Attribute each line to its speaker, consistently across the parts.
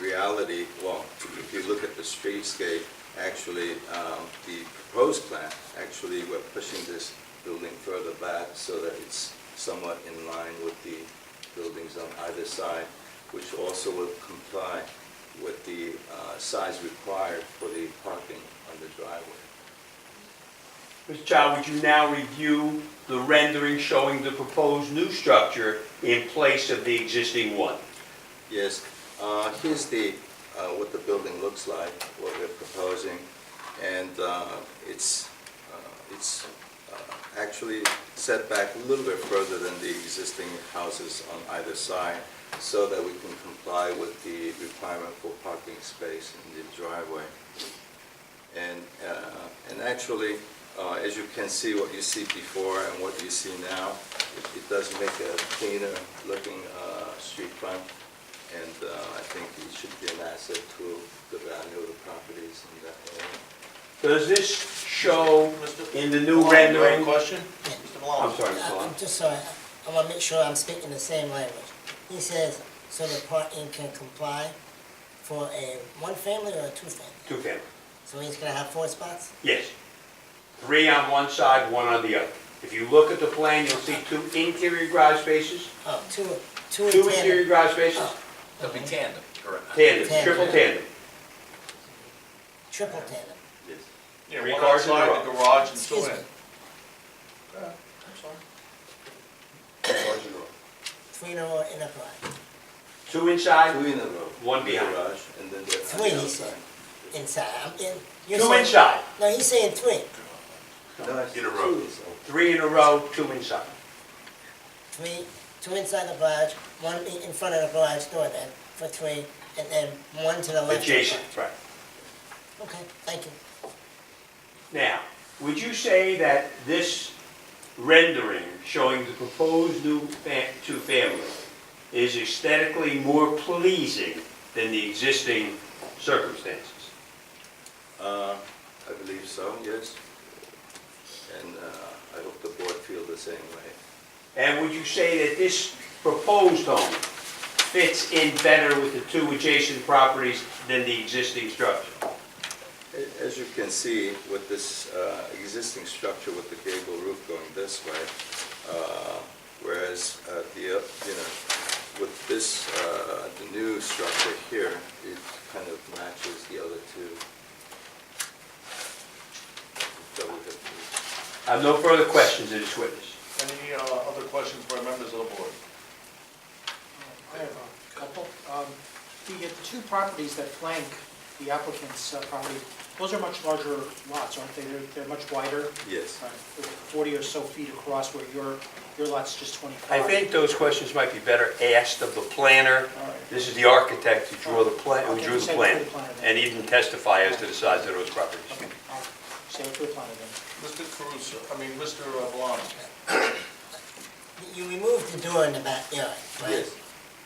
Speaker 1: reality, well, if you look at the streetscape, actually, um, the proposed plan, actually, we're pushing this building further back so that it's somewhat in line with the buildings on either side, which also will comply with the uh, size required for the parking on the driveway.
Speaker 2: Mr. Chow, would you now review the rendering showing the proposed new structure in place of the existing one?
Speaker 1: Yes, uh, here's the, uh, what the building looks like, what we're proposing, and uh, it's, uh, it's uh, actually set back a little bit further than the existing houses on either side, so that we can comply with the requirement for parking space in the driveway. And, uh, and actually, uh, as you can see, what you see before and what you see now, it- it does make a cleaner looking uh, street front. And uh, I think it should be an asset to the value of the properties in that area.
Speaker 2: Does this show
Speaker 3: Mr.
Speaker 2: in the new
Speaker 3: Malone, you have a
Speaker 2: rendering?
Speaker 3: question? Mr. Malone?
Speaker 2: I'm sorry, Mr.
Speaker 4: Uh,
Speaker 2: Lyon.
Speaker 4: I'm just sorry, I want to make sure I'm speaking the same language. He says, so the parking can comply for a one-family or a two-family?
Speaker 2: Two family,
Speaker 4: So he's gonna have four spots?
Speaker 2: yes. Three on one side, one on the other. If you look at the plan, you'll see two interior garage spaces,
Speaker 4: Oh, two, two in
Speaker 2: two interior
Speaker 4: tandem? Oh,
Speaker 2: garage spaces,
Speaker 5: It'll be tandem, correct?
Speaker 2: tandem,
Speaker 4: Tandem.
Speaker 2: triple tandem.
Speaker 4: Triple tandem,
Speaker 1: Yes.
Speaker 3: Yeah,
Speaker 2: Three
Speaker 3: one
Speaker 2: cars in a
Speaker 3: outside, the garage Uh, and two
Speaker 4: excuse
Speaker 3: in.
Speaker 4: me,
Speaker 1: Two
Speaker 4: three in a row in a garage,
Speaker 2: Two inside,
Speaker 1: in a row.
Speaker 2: One behind.
Speaker 1: Garage, and then the.
Speaker 4: Three, he
Speaker 1: on the
Speaker 4: said.
Speaker 1: outside.
Speaker 4: inside, I'm in. you're
Speaker 2: two
Speaker 4: saying-
Speaker 2: inside,
Speaker 4: No, he's saying three,
Speaker 1: No, it's
Speaker 3: In a row.
Speaker 1: two is all.
Speaker 2: three in a row, two inside.
Speaker 4: three, two inside the garage, one i- in front of the garage door then, for three, and then one to the left. of the
Speaker 2: Adjacent, right.
Speaker 4: garage. Okay, thank you.
Speaker 2: Now, would you say that this rendering showing the proposed new fa- two-family is aesthetically more pleasing than the existing circumstances?
Speaker 1: Uh, I believe so, yes. And uh, I hope the board feel the same way.
Speaker 2: And would you say that this proposed home fits in better with the two adjacent properties than the existing structure?
Speaker 1: A- As you can see, with this uh, existing structure with the gable roof going this way, uh, whereas uh, the, uh, you know, with this, uh, the new structure here, it kind of matches the other two. Double hip roof.
Speaker 2: I have no further questions of this witness.
Speaker 3: Any uh, other questions by members of the board?
Speaker 6: I have a couple. Um, The uh, two properties that flank the applicant's uh, property, those are much larger lots, aren't they? They're- They're much wider,
Speaker 1: Yes.
Speaker 6: uh, 40 or so feet across, where your, your lot's just
Speaker 2: I
Speaker 6: 25.
Speaker 2: think those questions might be better asked of the planner.
Speaker 6: All right.
Speaker 2: This is the architect who drew the plan, who
Speaker 6: Okay,
Speaker 2: drew the
Speaker 6: say
Speaker 2: plan,
Speaker 6: for the plan then.
Speaker 2: and he didn't testify as to the size of those properties.
Speaker 6: Okay, I'll save it for the plan then.
Speaker 3: Mr. Caruso, I mean, uh, Mr. Malone?
Speaker 4: You removed the door in the backyard, right?
Speaker 1: Yes,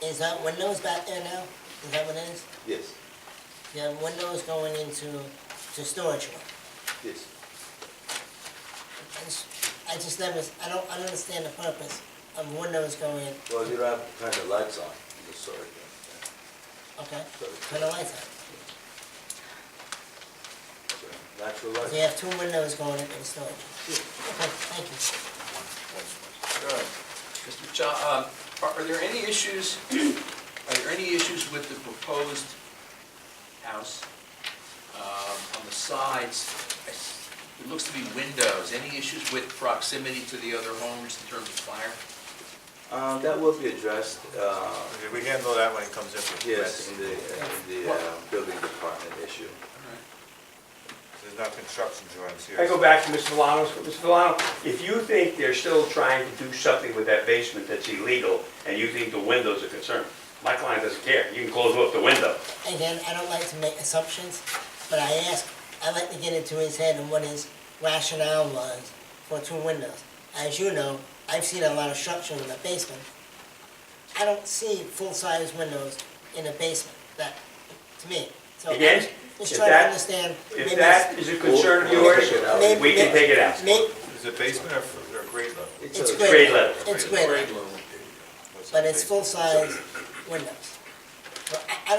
Speaker 4: Is that windows back there now? Is that what it is?
Speaker 1: yes,
Speaker 4: You have windows going into, to storage room.
Speaker 1: yes.
Speaker 4: I just- I just never, I don't, I don't understand the purpose of windows going,
Speaker 1: Well, you don't have to turn the lights on, I'm sorry.
Speaker 4: okay,
Speaker 1: Sorry.
Speaker 4: turn the lights on.
Speaker 1: Natural
Speaker 4: So you
Speaker 1: light.
Speaker 4: have two windows going into the storage. room. Okay, thank you.
Speaker 3: Good.
Speaker 5: Mr. Chow, um, are are there any issues, are there any issues with the proposed house? Um, On the sides, I s- it looks to be windows. Any issues with proximity to the other homes in terms of fire?
Speaker 1: Uh, That will be addressed, uh,
Speaker 3: We handle that when it comes in.
Speaker 1: Yes, in the, in the uh, building department issue.
Speaker 3: There's not construction drawings here.
Speaker 2: I go back to Mr. Valano's, Mr. Valano, if you think they're still trying to do something with that basement that's illegal, and you think the windows are concerned, my client doesn't care, you can close up the window.
Speaker 4: Again, I don't like to make assumptions, but I ask, I like to get into his head and what his rationale was for two windows. As you know, I've seen a lot of structure in the basement. I don't see full-size windows in the basement, that, to me. So I'm
Speaker 2: Again,
Speaker 4: Just
Speaker 2: if
Speaker 4: trying to
Speaker 2: that-
Speaker 4: understand. maybe
Speaker 2: If that is a concern of yours,
Speaker 4: Maybe-
Speaker 2: we can take it out.
Speaker 4: it's- may-
Speaker 3: Is it basement or grade level?
Speaker 4: It's
Speaker 1: a-
Speaker 4: great.
Speaker 2: grade level.
Speaker 4: It's grade level, but it's full-size windows.